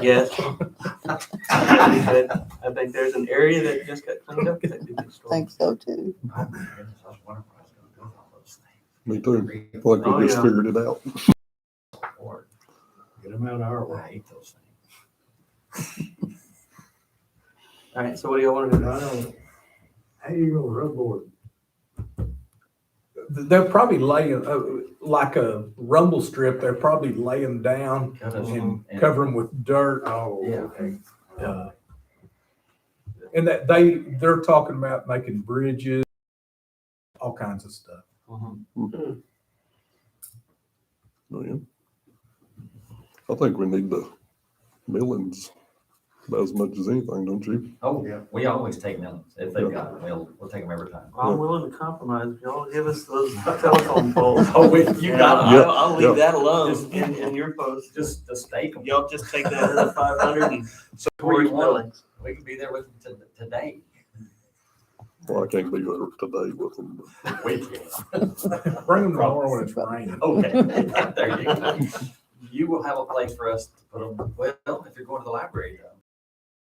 Yes. But I think there's an area that just got cleaned up. that did the storm. think so too. Oh, Me too. Like Oh, we just yeah. figured it out. Get them out of our way. I hate those things. All right, so what do y'all want to But do? I don't, how you gonna rub board? They're probably laying, uh, like a rumble strip, they're probably laying down Cut us- and cover them with dirt. Oh, Yeah. okay. Uh, And that they, they're talking about making bridges, all kinds of stuff. Mhm. Oh, yeah. I think we need the millings about as much as anything, don't you? Oh, Yeah. we always take melons. If they've got them, we'll, we'll take them every time. I'm willing to compromise. if Y'all give us those telephone poles. Oh, we- you got 'em. Yeah, I'll, I'll yeah. leave that alone in, in your post. Just the steak 'em. Y'all just take that other five hundred and Where towards you want 'em. millings. We can be there with them to- today. Well, I can't be there today with them. but We can. Bring them tomorrow when it's raining. Okay, there you go. You will have a place for us to put them, well, if you're going to the library though.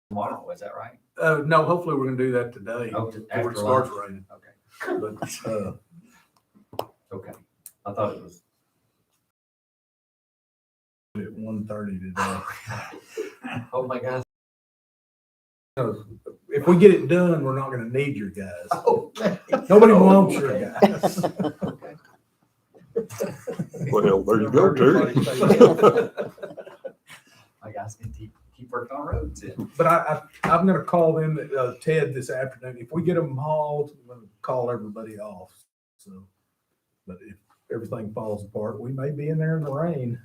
Tomorrow, is that right? Uh, no, hopefully we're gonna do that today Oh, to- before after it starts lunch. raining. Okay. But, uh, Okay, I thought it was. at one thirty today. Oh, my gosh. If we get it done, we're not gonna need your guys. Okay. Nobody wants your Okay. guys. Okay. Well, there you go, Terry. My guys can keep, keep working on roads. yeah. But I, I, I'm gonna call them, uh, Ted this afternoon. If we get them hauled, I'm gonna call everybody off, so. But if everything falls apart, we may be in there in the rain.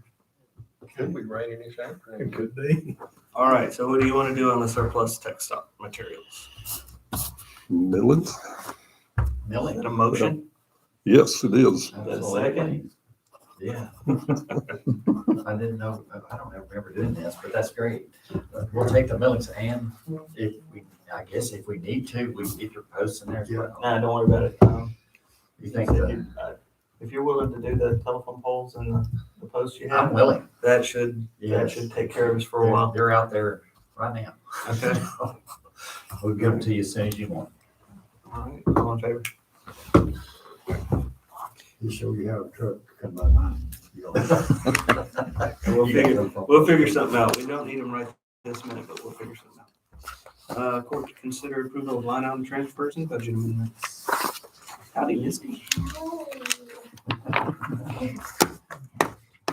Could be raining this afternoon. It could be. All right, so what do you want to do on the surplus tech stock materials? Millings? Is Milling. that a motion? Yes, it is. Absolutely. Yeah. I didn't know, I don't remember doing this, but that's great. We'll take the millings and if we, I guess if we need to, we can get your posts in there. as well. Nah, don't worry about it. Um, You think that, uh, If you're willing to do the telephone poles and the- the posts you I'm have, willing. that should, that Yes. should take care of us for a while. They're out there right now. Okay. We'll give them to you as soon as you want. All right, all in favor? You show you how a truck come by mine. You'll- We'll You got figure, them. we'll figure something out. We don't need them right this minute, but we'll figure something out. Uh, court to consider approval of line item transfers and budget amendments. Howdy, Misty.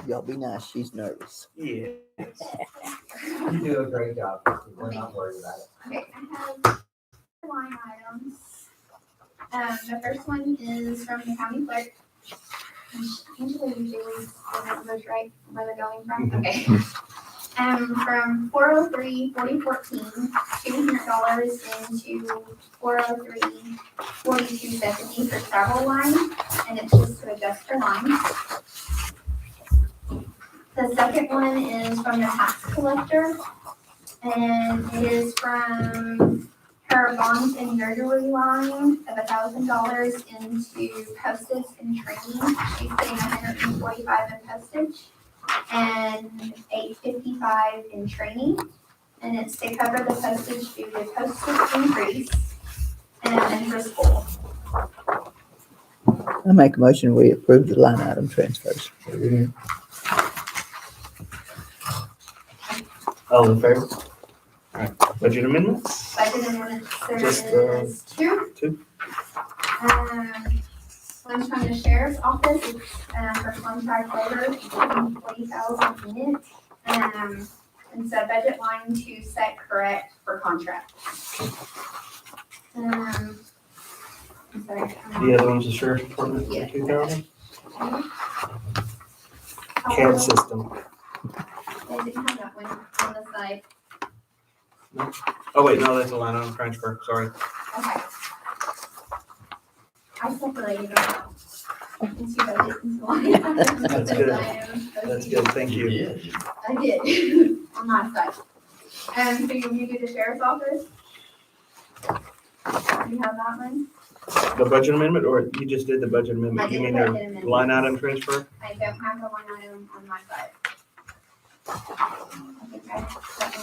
Y'all be nice. She's nervous. Yeah. You do a great job. We're not worried about it. Okay, I have four line items. Um, the first one is from the county clerk. Angela usually doesn't those right where they're going from, okay. Um, from four oh three forty fourteen, two hundred dollars into four oh three forty-two seventy for travel line, and it's just to adjust her line. The second one is from the tax collector, and it is from her bonds and burglary line of a thousand dollars into postage and training. She's putting a hundred and forty-five in postage and eight fifty-five in training. And it's to cover the postage due to postage increase and then for school. I make a motion, we approve the line item transfers. All in favor? All right, budget amendments? Budget amendments, Just, there uh, is two. two. Um, one's from the sheriff's office, it's, um, for contract labor, forty thousand units. Um, it's a budget line to set correct for contract. Um, I'm sorry. um, The other one's the sheriff's department, Yeah. two thousand. oh, CAD system. I didn't have that one on the side, Oh, wait, no, that's a line item transfer, sorry. okay. I separated them out into budget and line items. That's good. Item, That's OCD. good, thank you. You did. I did, on my side. Um, so you, you do the sheriff's office? You have that one? The budget amendment, or you just did the budget I amendment? You did mean budget the amendments. line item transfer? I don't have the line item on my side. I think I-